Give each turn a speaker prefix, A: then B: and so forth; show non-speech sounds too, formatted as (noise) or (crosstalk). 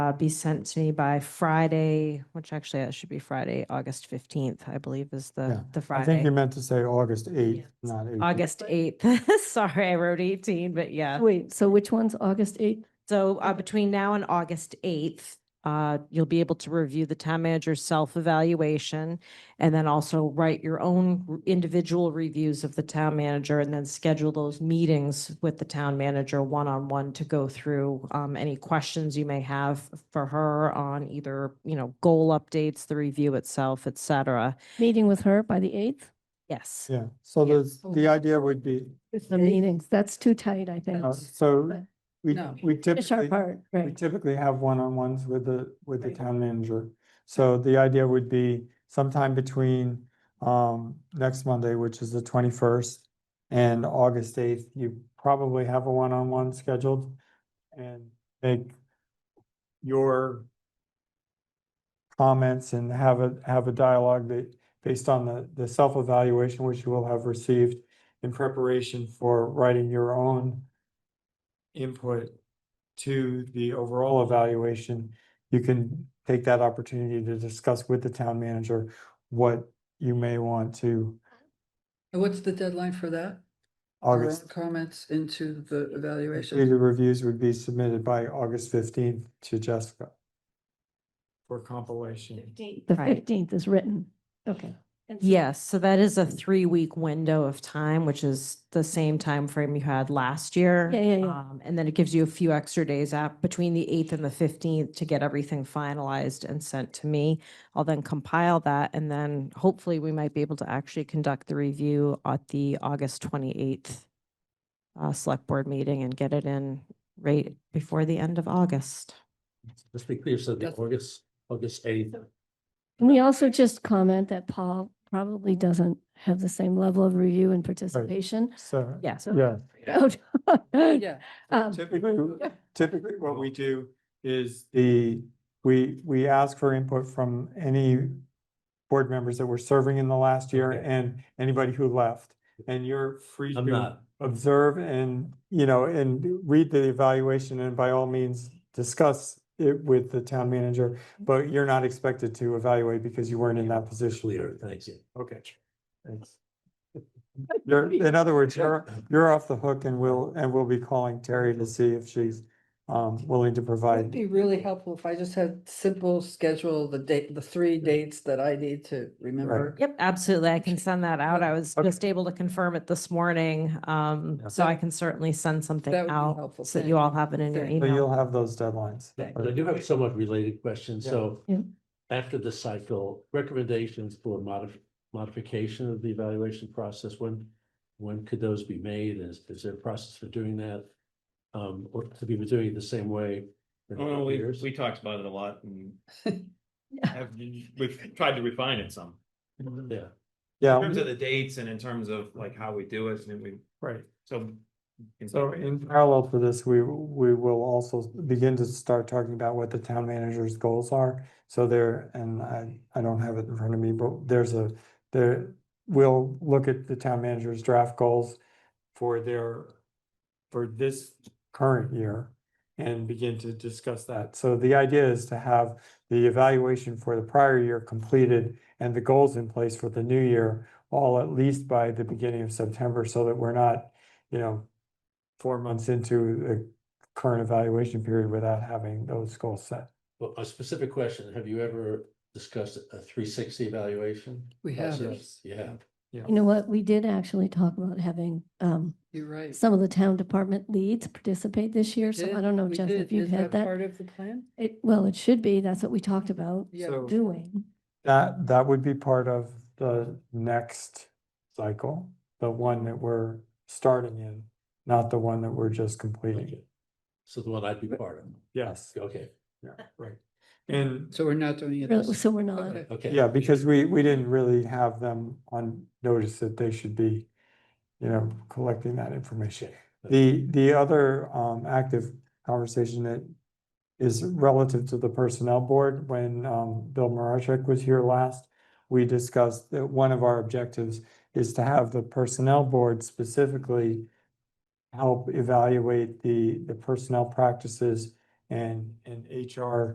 A: uh, be sent to me by Friday, which actually that should be Friday, August fifteenth, I believe is
B: Yeah.
A: the, the
B: I think
A: Friday.
B: you meant to say August eighth, not eighteen.
A: August eighth. (laughs) Sorry, I wrote eighteen, but yeah.
C: Wait, so which one's August eighth?
A: So uh, between now and August 8th, uh, you'll be able to review the town manager's self-evaluation and then also write your own r- individual reviews of the town manager and then schedule those meetings with the town manager one-on-one to go through um, any questions you may have for her on either, you know, goal updates, the review itself, et cetera.
C: Meeting with her by the eighth?
A: Yes.
B: Yeah, so
A: Yeah.
B: the, the idea would be,
C: The meetings, that's too tight, I think.
B: uh, so
C: but-
B: we,
D: No.
B: we
C: It's our
B: typically,
C: part,
B: we
C: right?
B: typically have one-on-ones with the, with the
D: Right.
B: town manager. So the idea would be sometime between, um, next Monday, which is the twenty-first, and August eighth, you probably have a one-on-one scheduled and make your comments and have a, have a dialogue that, based on the, the self-evaluation which you will have received in preparation for writing your own input to the overall evaluation, you can take that opportunity to discuss with the town manager what you may want to
D: And what's the deadline for that? Our
B: August.
D: Comments into the evaluation?
B: Completed reviews would be submitted by August fifteenth to Jessica. For compilation.
C: The
A: Right.
C: fifteenth is written. Okay. And so-
A: Yes, so that is a three-week window of time, which is the same time frame you had last year.
C: Yeah, yeah, yeah.
A: Um, And then it gives you a few extra days out between the 8th and the 15th to get everything finalized and sent to me. I'll then compile that, and then hopefully we might be able to actually conduct the review at the August 28th uh, Select Board meeting and get it in right before the end of August.
E: Let's be clear, so the
D: Yes.
E: August, August eighth,
C: Can we also just comment that Paul probably doesn't have the same level of review and participation?
B: So,
A: Yes.
B: yeah,
C: (laughs) Yeah.
D: Yeah,
C: Um,
B: typically, typically what we do is the, we, we ask for input from any board members that were serving in the last year
E: Okay.
B: and anybody who left. And you're free
E: I'm
B: to
E: not,
B: observe and, you know, and read the evaluation and by all means discuss it with the town manager, but you're not expected to evaluate because you weren't in that position.
E: clear, thank you.
B: Okay.
E: (laughs)
B: Thanks. You're, in other words, you're, you're off the hook and we'll, and we'll be calling Terry to see if she's um willing to
D: it'd
B: provide.
D: be really helpful if I just had simple schedule, the date, the three dates that I need to remember.
A: Yep, absolutely. I can send that out. I was
B: Okay.
A: just able to confirm it this morning. Um,
E: Yeah.
A: so I can certainly send something
D: That would be
A: out
D: helpful.
A: so that
D: Thank
A: you all
D: you.
A: have it in your
D: Thank
B: So
A: email.
B: you'll have those deadlines.
E: But I do have a somewhat related question,
B: Yeah.
E: so
C: Yeah.
E: after the cycle, recommendations for modif- modification of the evaluation process, when, when could those be made? Is, is there a process for doing that? Um, or to be doing it the same way? for
F: Oh, no, we,
E: years?
F: we talked about it a lot and have, we've tried to refine it some. In
E: Yeah,
B: Yeah,
F: terms of the dates and in terms of like how we do it and we,
B: right.
F: so.
B: So in parallel to this, we, we will also begin to start talking about what the town manager's goals are. So there, and I, I don't have it in front of me, but there's a, there, we'll look at the town manager's draft goals for their, for this current year and begin to discuss that. So the idea is to have the evaluation for the prior year completed and the goals in place for the new year, all at least by the beginning of September, so that we're not, you know, four months into the current evaluation period without having those goals set.
E: but a specific question, have you ever discussed a three sixty evaluation?
D: We have,
E: Process? You have.
C: You know what? We did actually talk about having, um,
D: you're right.
C: some of the town department leads participate this year. So
D: Did-
C: I don't know,
D: we
C: Jeff,
D: did.
C: if you've
D: Is
C: had that.
D: Part of the plan?
C: It, well, it should be. That's what we talked about
D: Yeah,
B: So-
C: doing.
B: That, that would be part of the next cycle, the one that we're starting in, not the one that we're just completing.
E: Okay. So the one I'd be part of,
B: Yes,
E: okay,
B: yeah, right. And,
D: so we're not doing it.
C: Really,
D: this-
C: So we're not.
D: Okay.
E: okay.
B: yeah, because we, we didn't really have them on notice that they should be, you know, collecting that information. The, the other um active conversation that is relative to the Personnel Board, when um Bill Marochek was here last, we discussed that one of our objectives is to have the Personnel Board specifically help evaluate the, the personnel practices and, and HR